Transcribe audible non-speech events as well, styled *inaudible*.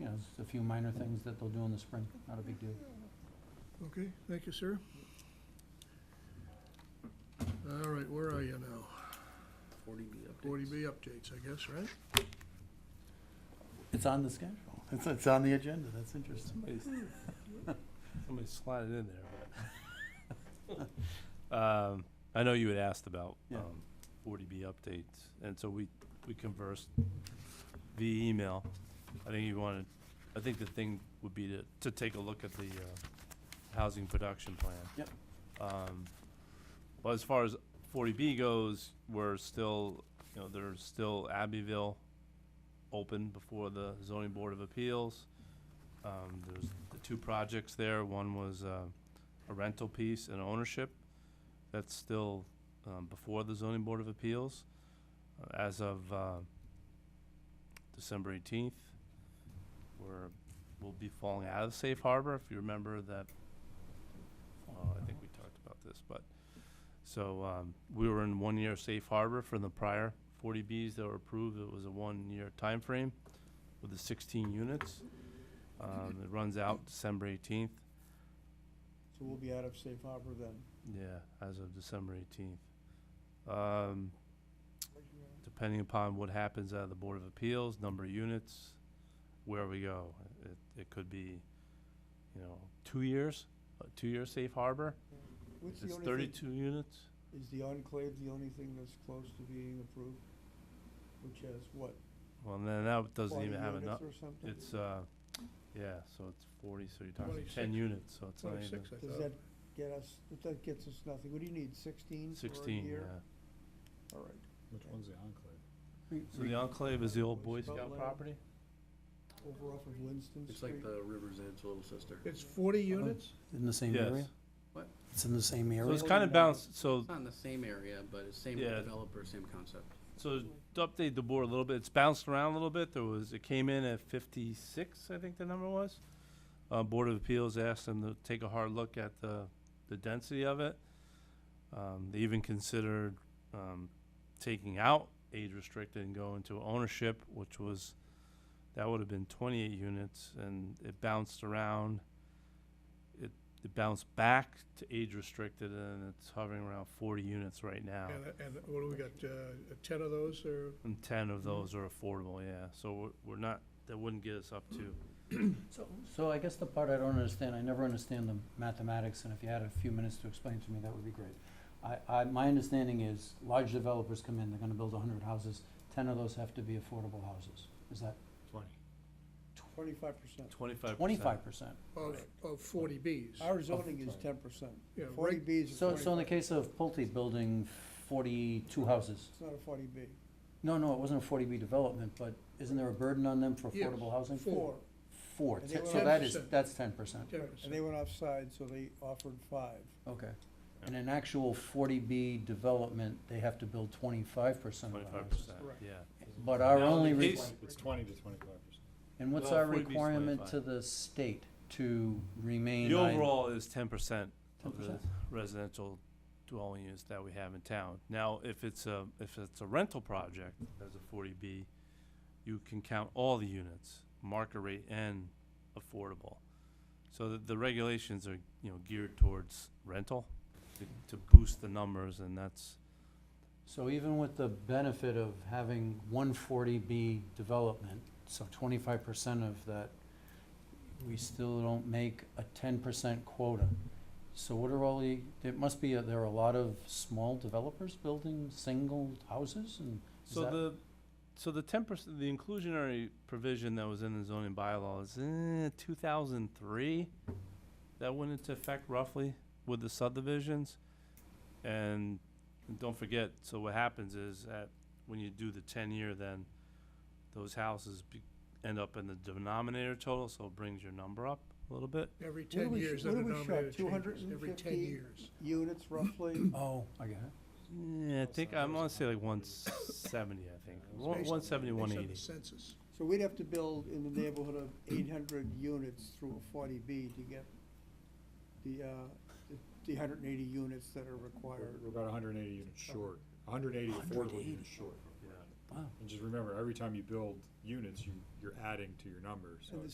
know, there's a few minor things that they'll do in the spring, not a big deal. Okay, thank you, sir. All right, where are you now? Forty B updates. Forty B updates, I guess, right? It's on the schedule. It's, it's on the agenda. That's interesting. Somebody somebody slotted in there, but. *laughs* Um, I know you had asked about, Yeah. um, forty B updates, and so we, we conversed via email. I think you wanted, I think the thing would be to, to take a look at the, uh, housing production plan. Yep. Um, well, as far as forty B goes, we're still, you know, there's still Abbeville open before the zoning board of appeals. Um, there's the two projects there, one was, uh, a rental piece and ownership. That's still, um, before the zoning board of appeals, uh, as of, uh, December eighteenth. We're, we'll be falling out of safe harbor, if you remember that, uh, I think we talked about this, but, so, um, we were in one-year safe harbor from the prior forty Bs that were approved, it was a one-year time frame with the sixteen units. Um, it runs out December eighteenth, So we'll be out of safe harbor then. yeah, as of December eighteenth. Um, depending upon what happens out of the Board of Appeals, number of units, where we go. It, it could be, you know, two years, a two-year safe harbor, What's the it's only thing, thirty-two units. is the enclave the only thing that's close to being approved? Which has what? Well, and then that doesn't 40 even have units enough, Or something? it's, uh, yeah, so it's forty, so you're talking ten 26. units, so it's not even, Twenty-six, I Does thought. that get us, that- that gets us nothing. What do you need, sixteen for a sixteen, yeah. year? All right. Which Okay. one's the enclave? So the enclave is the old Boy What's about Scout land? property? Over off of Winston Street. It's like the River's Edge Little Sister. It's forty Uh-huh. units? In the same area? Yes. What? It's in the same So area? it's kind of balanced, so It's not in the same area, but it's same Yeah. developer, same concept. So to update the board a little bit, it's bounced around a little bit. There was, it came in at fifty-six, I think the number was. Uh, Board of Appeals asked them to take a hard look at the, the density of it. Um, they even considered, um, taking out age restricted and going to ownership, which was, that would have been twenty-eight units and it bounced around. It, it bounced back to age restricted and it's hovering around forty units right now. And, and what do we got, uh, ten of those or? And ten of those are affordable, yeah, so we're, we're not, that wouldn't get us up to, So- So I guess the part I don't understand, I never understand the mathematics, and if you had a few minutes to explain to me, that would be great. I, I, my understanding is large developers come in, they're gonna build hundred houses, ten of those have to be affordable houses. Is that Twenty. Twenty-five percent. twenty-five percent. twenty-five percent? Of, of forty Bs? Our zoning is sorry. ten percent. Yeah, Forty right- B is a So, so in the 25. case of Pulte building forty-two houses, It's not a forty B. no, no, it wasn't a forty B development, but isn't there a burden on them for Yes. affordable housing? Four. Four, Four, And Ten- they so were- that is, 10%. that's ten percent, Ten and they percent. went offside, so they offered five. okay. And an actual forty B development, they have to build twenty-five percent of the Twenty-five houses. percent, Correct. yeah. But our Now, only, the re- case- It's twenty to twenty-five percent. and what's well, our 40B is requirement 25. to the state to remain? The I- overall is ten percent of the 10%? residential dwelling units that we have in town. Now, if it's a, if it's a rental project, as a forty B, you can count all the units, market rate and affordable. So the, the regulations are, you know, geared towards rental, to, to boost the numbers, and that's, So even with the benefit of having one forty B development, so twenty-five percent of that, we still don't make a ten percent quota. So what are all the, it must be, a- there are a lot of small developers building single houses and is So that- the, so the ten percent, the inclusionary provision that was in the zoning bylaw is in two thousand three. That went into effect roughly with the subdivisions. And don't forget, so what happens is that when you do the ten year, then those houses be, end up in the denominator total, so it brings your number up a little bit. Every do ten we sh- years, the what do we denominator shot, 250? changes, every ten years. Units roughly. Oh, I get it. Yeah, I think, I'm gonna say like one seventy, I think, Yeah, it was one, based one on- seventy, Based one on the eighty. census. So we'd have to build in the neighborhood of eight hundred units through a forty B to get the, uh, the- the hundred and eighty units that are We're required. we're about hundred and eighty units short, hundred and eighty affordable 180. units short. Yeah. Wow. And just remember, every time you build units, you, you're adding to your numbers, so And the it's